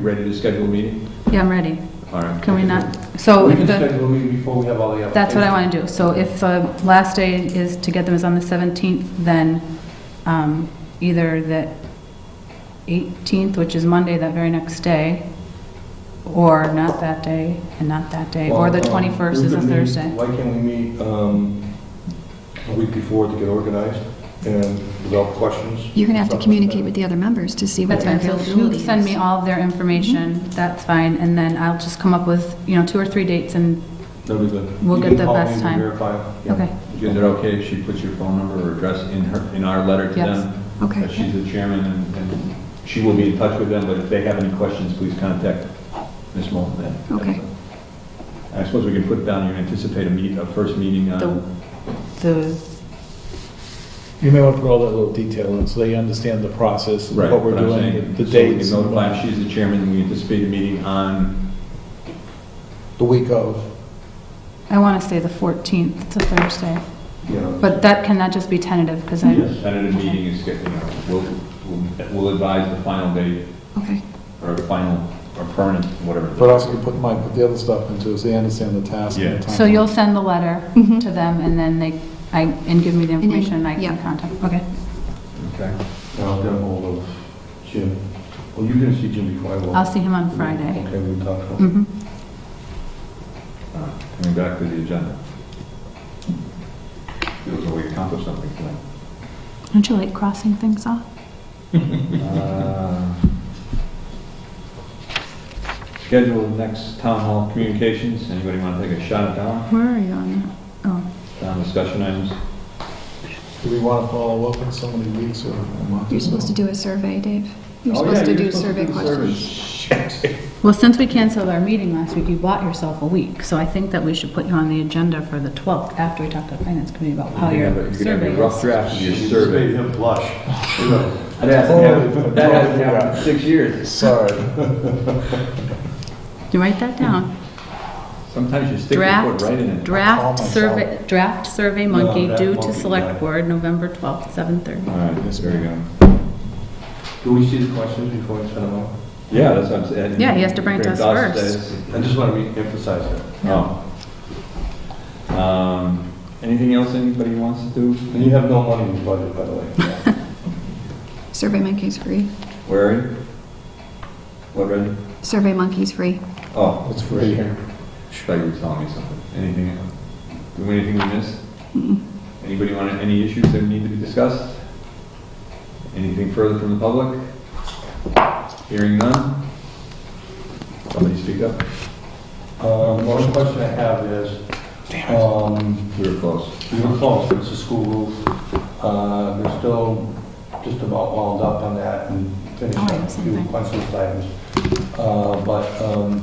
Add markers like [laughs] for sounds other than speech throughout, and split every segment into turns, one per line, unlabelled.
ready to schedule a meeting?
Yeah, I'm ready.
All right.
Can we not, so
We
if
can
the,
schedule a meeting before we have all the applications.
that's what I want to do. So if the last day is, to get them is on the 17th, then um, either the 18th, which is Monday, that very next day, or not that day, and not that day, or the
Well, um,
21st
we
is a
could meet-
Thursday.
Why can't we meet um, a week before to get organized and develop questions?
You're going to have to communicate with the other members to see what
That's
their
fine, so
availability
you
is. Mm-hmm.
send me all of their information, that's fine, and then I'll just come up with, you know, two or three dates and,
That'd be good.
We'll
You
get
can
the
call me
best
to
time.
verify. Yeah.
okay,
Is it okay if she puts your phone number or address in her, in our letter to
Yes.
them?
Okay.
That she's the chairman and- and she will be in touch with them, but if they have any questions, please contact Ms. Moulton then.
Okay.
I suppose we can put down your anticipate a meet, a first meeting
The-
on,
the,
You may want to put all that little detail in, so they understand the process,
right,
what we're
what I'm
doing,
saying. So
the
we can
dates. and
notify,
whatnot.
she's the chairman, and we anticipate a meeting on,
The week of.
I want to say the 14th, it's a Thursday.
you know,
But that cannot just be tentative, because I,
Yes, tentative meeting is, you know, we'll, we'll- we'll advise the final date,
Okay,
or final, or permanent, whatever.
But also you put, might put the other stuff into, it, so they understand the task
Yeah.
and the time.
so you'll send the letter
Mhm.
to them, and then they, I, and give me the
And then-
information, and I
yeah.
can contact, okay?
Okay.
And I'll get hold of Jim. Well, you're going to see Jim before I will.
I'll see him on Friday.
Okay, we'll talk. about it.
Mhm.
Coming back to the agenda. Feels like we accomplished something tonight.
Don't you like crossing things off?
Uh, Schedule next town hall communications, anybody want to take a shot at that one?
Where are you on that? Oh,
Town discussion items?
Do we want to follow up in so many weeks or a month?
you're supposed to do a survey, Dave. Oh,
Oh,
You're supposed to do survey questions.
well, since we canceled our meeting last week, you bought yourself a week, so I think that we should put you on the agenda for the 12th, after we talk to the finance committee about how
You
your
can have a- You can have
survey
a rough
is.
draft of your
You just
survey.
made him blush. You know,
That hasn't happened, that hasn't happened in six years.
Sorry.
You write that down.
Sometimes you stick your foot
Draft,
right in it.
draft
I'll call
survey, draft survey
No,
monkey
that
due to
monkey
select
guy.
board, November 12th, 7:30.
All right, yes, there we go.
Do we see the questions before we send them out?
Yeah, that's what I'm saying.
Yeah, he has to bring it to us first.
says-
I just want to re-emphasize that.
Oh. Um, Anything else anybody wants to do?
And you have no money in the budget, by the way. [laughs]
Survey Monkey's free.
Where are you? What, Randy?
Survey Monkey's free.
Oh,
It's free here.
thought you were telling me something. Anything, else? Do we- anything we missed? Anybody want, any issues that need to be discussed? Anything further from the public? Hearing none? Somebody speak up?
Um, One question I have is, um,
We were close.
we were close, it's a school roof. Uh, We're still just about wound up on that and
Oh,
finishing
I
a
have
few
something.
questions items. Uh, But um,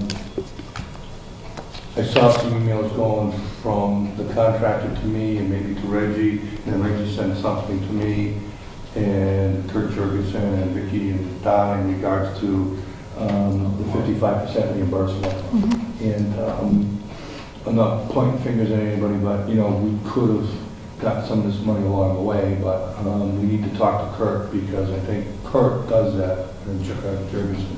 I saw some emails going from the contractor to me and maybe to Reggie, and then Reggie sent something to me and Kurt Jurgensen and Vicky and Don in regards to um, the 55% reimbursement. And um, I'm not pointing fingers at anybody, but, you know, we could have got some of this money along the way, but um, we need to talk to Kurt because I think Kurt does that, and Jer- uh, Jurgensen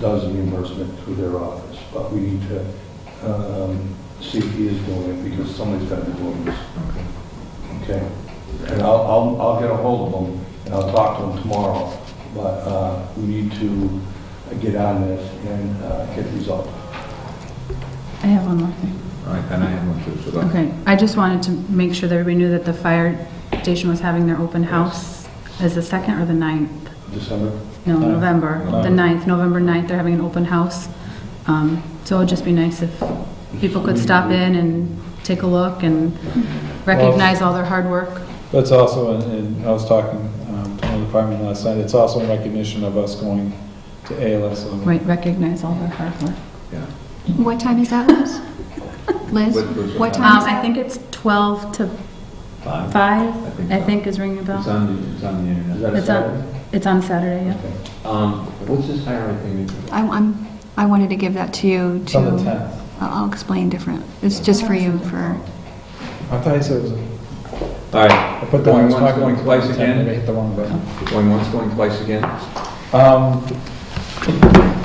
does the reimbursement through their office. But we need to um, see if he is doing it because somebody's got to be doing this. Okay? And I'll, I'll, I'll get a hold of him and I'll talk to him tomorrow. But uh, we need to get on this and uh, get these up.
I have one more thing.
All right, and I have one too, so go.
Okay, I just wanted to make sure that everybody knew that the fire station was having their open house as the second or the ninth?
December?
No,
Ninth.
November, the
November.
ninth, November ninth, they're having an open house. Um, So it'd just be nice if people could stop in and take a look and recognize all their hard work.
That's also, in- in I was talking um, to one of the firemen last night, it's also in recognition of us going to ALS. on-
Right, recognize all their hard work.
Yeah.
What time is that, Liz? Liz,
What- what's
what
that?
time
Um,
is
I
that?
think it's 12 to
Five?
5,
I
I
so.
think is ringing a
It's
bell.
on the, it's on the
Is
internet.
that a
It's on-
Saturday?
It's on Saturday, yeah.
Okay.
Um, what's this higher thing?
I- I'm, I wanted to give that to you
It's
to,
on the 10th.
I'll I'll explain different. It's just for you, for,
I thought you said it was,
All right,
I put the
Going
wrong.
once, going twice again.
I hit the wrong button.
going once, going twice again?
Um,